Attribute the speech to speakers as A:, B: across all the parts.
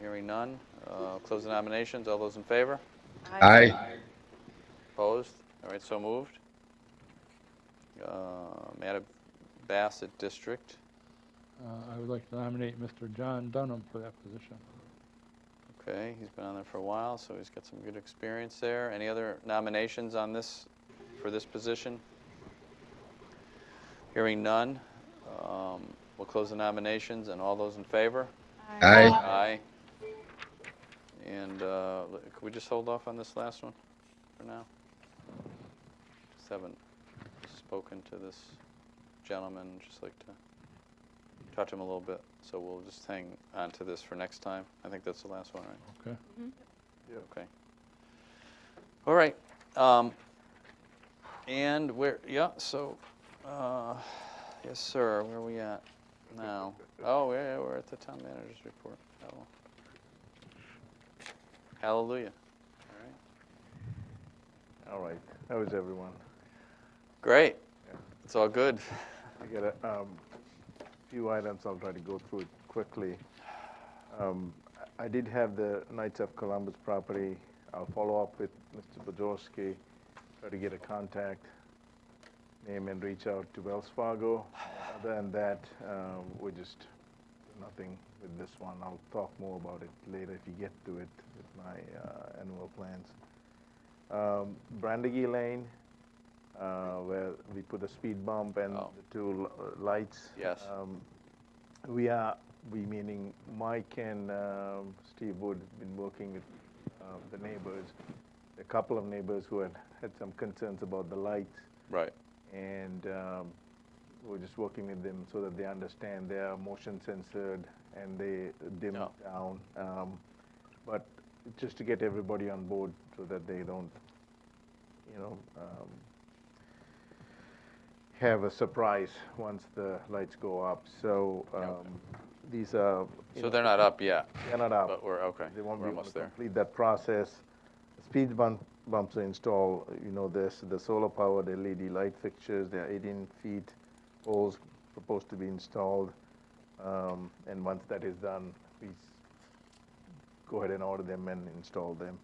A: Hearing none. Uh, Close the nominations. All those in favor?
B: Aye.
A: Opposed? All right, so moved. Um, Add a Bassett District.
C: Uh, I would like to nominate Mr. John Dunham for that position.
A: Okay, he's been on there for a while, so he's got some good experience there. Any other nominations on this, for this position? Hearing none. Um, We'll close the nominations, and all those in favor?
B: Aye.
A: Aye. And uh, l- could we just hold off on this last one for now? Just haven't spoken to this gentleman, just like to talk to him a little bit. So we'll just hang on to this for next time. I think that's the last one, right?
C: Okay.
A: Okay. All right. um, And where, yeah, so, uh, yes, sir, where are we at now? Oh, yeah, yeah, we're at the town manager's report. Oh. Hallelujah. All right.
D: All right, that was everyone.
A: Great. It's all good.
D: I got a um, few items, I'll try to go through it quickly. Um, I I did have the Knights of Columbus property. I'll follow up with Mr. Bodorsky, try to get a contact name and reach out to Wells Fargo. Other than that, uh, we're just nothing with this one. I'll talk more about it later if you get to it with my uh, annual plans. Um, Brandegee Lane, uh, where we put a speed bump and
A: Oh.
D: the two l- lights.
A: Yes.
D: Um, we are, we meaning Mike and um, Steve Wood have been working with uh, the neighbors, a couple of neighbors who had had some concerns about the lights,
A: Right.
D: and um, we're just working with them so that they understand they are motion censored and they dim
A: Yeah.
D: down. Um, but just to get everybody on board so that they don't, you know, um, have a surprise once the lights go up. So um, these are. you
A: So
D: know,
A: they're not up yet,
D: They're not up.
A: but we're, okay,
D: They
A: we're
D: won't be able to
A: almost there.
D: complete that process. Speed bump, bumps are installed, you know, this, the solar powered LED light fixtures, they are eighteen feet poles proposed to be installed. Um, and once that is done, we s- go ahead and order them and install them.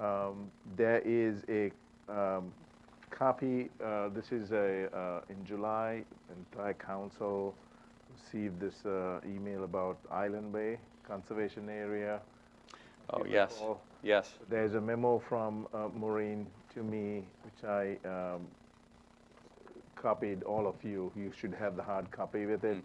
D: Um, there is a, um, copy, uh, this is a, uh, in July, entire council received this, uh, email about Island Bay Conservation Area.
A: Oh,
D: If you
A: yes,
D: recall,
A: yes,
D: There's a memo from uh, Maureen to me, which I um, copied all of you. You should have the hard copy with it.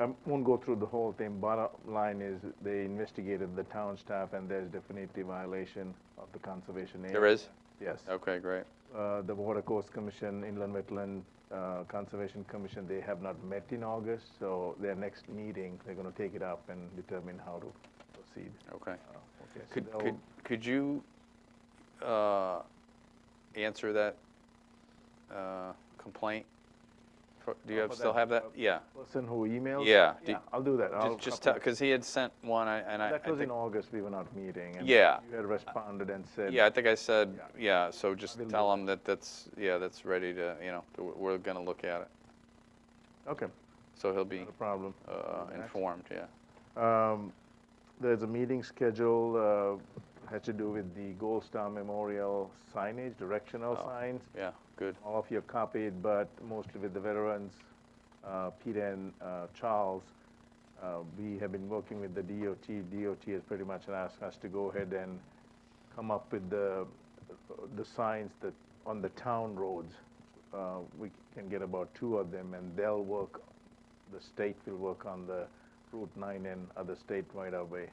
D: I
A: Mm.
D: won't go through the whole thing. Bottom line is, they investigated the town staff, and there's definitely violation of the conservation area.
A: there is?
D: Yes
A: Okay, great.
D: uh, the Water Course Commission, Inland Wetland uh, Conservation Commission, they have not met in August, so their next meeting, they're going to take it up and determine how to proceed.
A: Okay.
D: Uh, okay, so
A: Could,
D: they'll-
A: could, could you uh, answer that uh, complaint? For- Do you
D: Oh,
A: have,
D: for
A: still
D: that,
A: have that?
D: uh,
A: Yeah.
D: Person who emailed?
A: Yeah, do-
D: I'll do that. I'll
A: Just- Just,
D: copy-
A: because he had sent one, I- and I.
D: That
A: I
D: was in
A: think-
D: August, we were not meeting. and
A: Yeah.
D: You had responded and said.
A: Yeah, I think I said, yeah, so just
D: will
A: tell
D: do
A: him that that's, yeah, that's ready to, you know, that we're- we're going to look at it.
D: Okay,
A: So he'll be
D: not a problem.
A: uh,
D: Next.
A: informed, yeah.
D: Um, There's a meeting scheduled, uh, had to do with the Gold Star Memorial signage, directional
A: Oh.
D: signs.
A: Yeah, good.
D: all of you have copied, but mostly with the veterans, uh, Peter and uh, Charles. Uh, We have been working with the DOT. DOT has pretty much asked us to go ahead and come up with the, the signs that, on the town roads. Uh, We can get about two of them, and they'll work, the state will work on the Route 9 and other state right-of-way.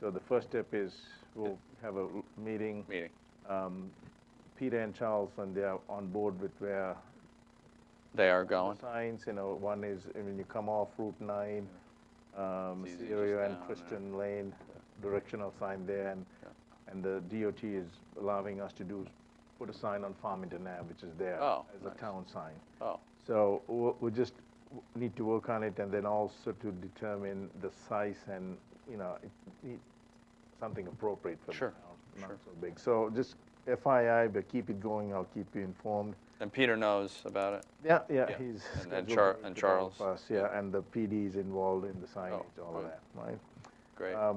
D: So the first step is, we'll have a l- meeting
A: Meeting.
D: um, Peter and Charles, when they are on board with where
A: They are
D: the
A: going.
D: signs, you know, one is uh, when you come off Route 9, um,
A: It's easy just
D: Syria and
A: down, yeah.
D: Christian Lane, directional sign there, and, and the DOT is allowing us to do, put a sign on Farmington Ave, which is there
A: Oh,
D: as
A: nice.
D: a town sign.
A: Oh,
D: So w- we just w- need to work on it and then also to determine the size and, you know, it need something appropriate for the
A: Sure,
D: town. Not
A: sure.
D: so big. So just FYI, but keep it going. I'll keep you informed.
A: and Peter knows about it.
D: Yeah, yeah,
A: Yeah,
D: he's.
A: and- and
D: scheduled
A: Char-
D: to meet
A: and
D: with all of
A: Charles. Oh,
D: us, Yeah, and the PD is involved in the signage, all of
A: good.
D: that, right?
A: Great.
D: Um,